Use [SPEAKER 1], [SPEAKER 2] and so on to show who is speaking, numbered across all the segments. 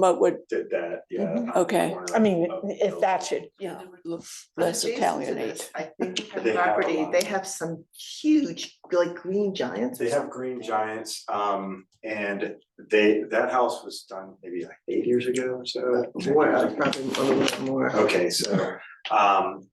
[SPEAKER 1] But would,
[SPEAKER 2] did that, yeah. Oh,
[SPEAKER 3] Mhm.
[SPEAKER 2] on the
[SPEAKER 1] Okay.
[SPEAKER 2] corner
[SPEAKER 3] I mean,
[SPEAKER 2] of-
[SPEAKER 3] if that should, you know,
[SPEAKER 1] l- less
[SPEAKER 4] Adjacent to
[SPEAKER 1] Italianate.
[SPEAKER 4] this, I think you have
[SPEAKER 2] They have a
[SPEAKER 4] property,
[SPEAKER 2] lot.
[SPEAKER 4] they have some huge, like green giants or
[SPEAKER 2] They have
[SPEAKER 4] something.
[SPEAKER 2] green giants, um, and they, that house was done maybe like eight years ago, so.
[SPEAKER 4] More, uh, probably a little bit more.
[SPEAKER 2] Okay, so, um,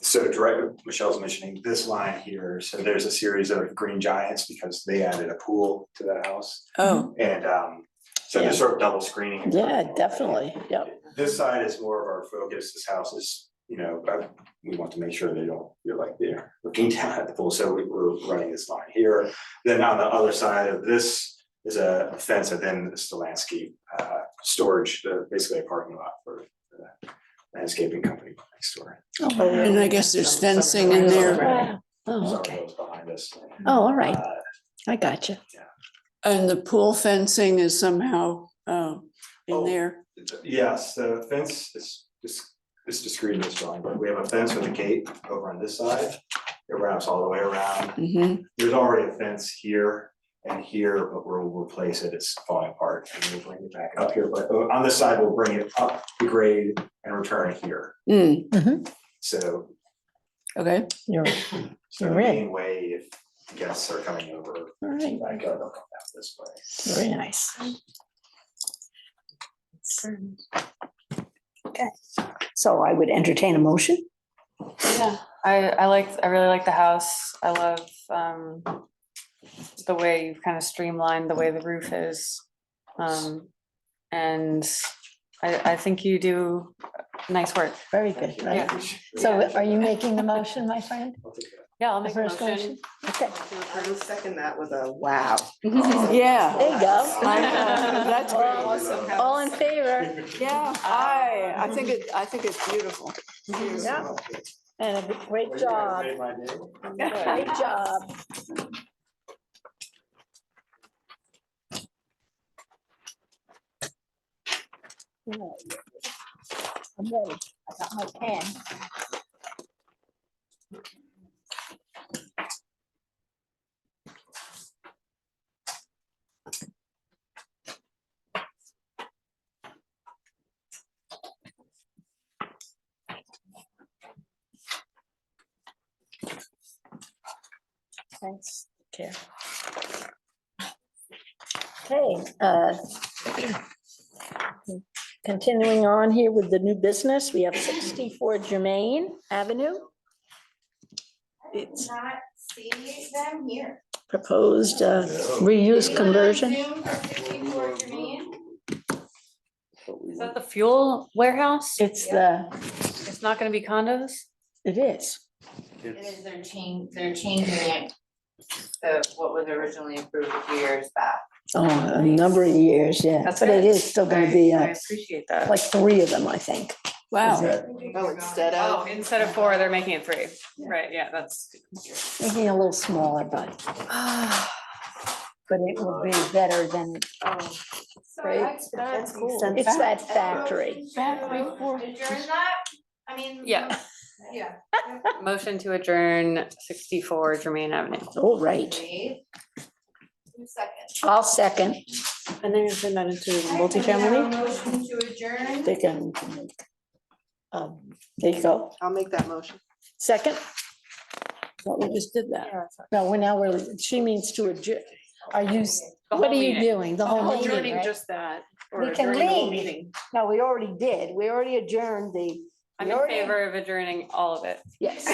[SPEAKER 2] so direct, Michelle's mentioning this line here, so there's a series of green giants because they added a pool to that house.
[SPEAKER 1] Oh,
[SPEAKER 2] And, um, so they're sort of double screening.
[SPEAKER 3] yeah, definitely, yeah.
[SPEAKER 2] This side is more of our focus, this house is, you know, uh, we want to make sure they don't, you're like, they're looking down at the pool, so we were running this line here. Then on the other side of this is a fence, and then it's the landscape, uh, storage, the, basically a parking lot for the landscaping company next door.
[SPEAKER 4] Oh,
[SPEAKER 1] Oh, and I guess there's
[SPEAKER 4] Some- some-
[SPEAKER 1] fencing in there
[SPEAKER 3] Wow. Oh,
[SPEAKER 2] Sorry,
[SPEAKER 3] okay.
[SPEAKER 2] those behind us.
[SPEAKER 3] Oh, all right,
[SPEAKER 2] Uh,
[SPEAKER 3] I got you.
[SPEAKER 1] and the pool fencing is somehow uh, in
[SPEAKER 2] Oh.
[SPEAKER 1] there.
[SPEAKER 2] Yes, the fence is, is, is discreet in this drawing, but we have a fence with a gate over on this side. It wraps all the way around.
[SPEAKER 1] Mhm.
[SPEAKER 2] There's already a fence here and here, but we'll replace it, it's falling apart, and we'll bring it back up here, but uh, on this side, we'll bring it up the grade and return it here,
[SPEAKER 1] Mm,
[SPEAKER 2] so.
[SPEAKER 1] Okay,
[SPEAKER 3] You're,
[SPEAKER 2] So the
[SPEAKER 3] Right.
[SPEAKER 2] main way, if guests are coming over,
[SPEAKER 3] all right,
[SPEAKER 2] I go, they'll come out this way.
[SPEAKER 3] very nice. Okay, so I would entertain a motion.
[SPEAKER 5] Yeah, I, I like, I really like the house. I love, um, the way you've kind of streamlined the way the roof is. Um, and I, I think you do nice work.
[SPEAKER 3] Very
[SPEAKER 2] Thank
[SPEAKER 3] good.
[SPEAKER 2] you, I
[SPEAKER 5] Yeah.
[SPEAKER 2] appreciate it.
[SPEAKER 3] So are you making the motion, my friend?
[SPEAKER 2] I'll take that.
[SPEAKER 5] Yeah, I'll
[SPEAKER 3] The
[SPEAKER 5] make a
[SPEAKER 3] first
[SPEAKER 5] motion.
[SPEAKER 3] Okay,
[SPEAKER 5] to
[SPEAKER 4] I
[SPEAKER 5] approve.
[SPEAKER 4] would second that with a wow.
[SPEAKER 1] yeah.
[SPEAKER 3] there you
[SPEAKER 1] I
[SPEAKER 3] go.
[SPEAKER 1] know, That's great.
[SPEAKER 4] Awesome house.
[SPEAKER 3] All in favor?
[SPEAKER 1] Yeah, I, I think it, I think it's beautiful.
[SPEAKER 3] Yeah, and a
[SPEAKER 2] Well, you
[SPEAKER 3] great
[SPEAKER 2] guys
[SPEAKER 3] job,
[SPEAKER 2] made my day.
[SPEAKER 3] great job. I'm ready. I got my pen. Thanks, Chair. Okay, uh, continuing on here with the new business, we have sixty-four Germain Avenue. It's
[SPEAKER 6] not see them here.
[SPEAKER 3] proposed uh, reuse conversion.
[SPEAKER 5] Is that the fuel warehouse?
[SPEAKER 3] It's the,
[SPEAKER 5] It's not gonna be condos?
[SPEAKER 3] it is.
[SPEAKER 6] It is their change, they're changing it to what was originally approved years back.
[SPEAKER 3] Oh, a number of years, yeah,
[SPEAKER 5] That's
[SPEAKER 3] but it
[SPEAKER 5] good.
[SPEAKER 3] is still gonna
[SPEAKER 5] I-
[SPEAKER 3] be
[SPEAKER 5] I
[SPEAKER 3] uh,
[SPEAKER 5] appreciate that.
[SPEAKER 3] like three of them, I think.
[SPEAKER 1] Wow,
[SPEAKER 4] Oh, instead
[SPEAKER 5] Oh,
[SPEAKER 4] of,
[SPEAKER 5] instead of four, they're making it three. Right, yeah, that's.
[SPEAKER 3] Making it a little smaller, but, but it will be better than,
[SPEAKER 6] Great,
[SPEAKER 4] that's cool.
[SPEAKER 3] it's that factory.
[SPEAKER 6] Adjourn that, I mean.
[SPEAKER 5] Yeah.
[SPEAKER 6] Yeah.
[SPEAKER 5] Motion to adjourn sixty-four Germain Avenue.
[SPEAKER 3] All right,
[SPEAKER 6] Wait. Two seconds.
[SPEAKER 3] I'll second.
[SPEAKER 5] And then you turn that into
[SPEAKER 6] Now, Motion to adjourn.
[SPEAKER 3] They can. um, There you go,
[SPEAKER 4] I'll make that motion.
[SPEAKER 3] second?
[SPEAKER 1] thought we just did that.
[SPEAKER 3] No, we're now, we're, she means to adjourn. Are you, s- what are you doing? The whole meeting,
[SPEAKER 5] Adjourning
[SPEAKER 3] Oh, right?
[SPEAKER 5] just that. or
[SPEAKER 3] We can
[SPEAKER 5] adjourning the whole
[SPEAKER 3] leave.
[SPEAKER 5] meeting.
[SPEAKER 3] No, we already did. We already adjourned the,
[SPEAKER 5] I'm in
[SPEAKER 3] You're in.
[SPEAKER 5] favor of adjourning all of it.
[SPEAKER 3] yes.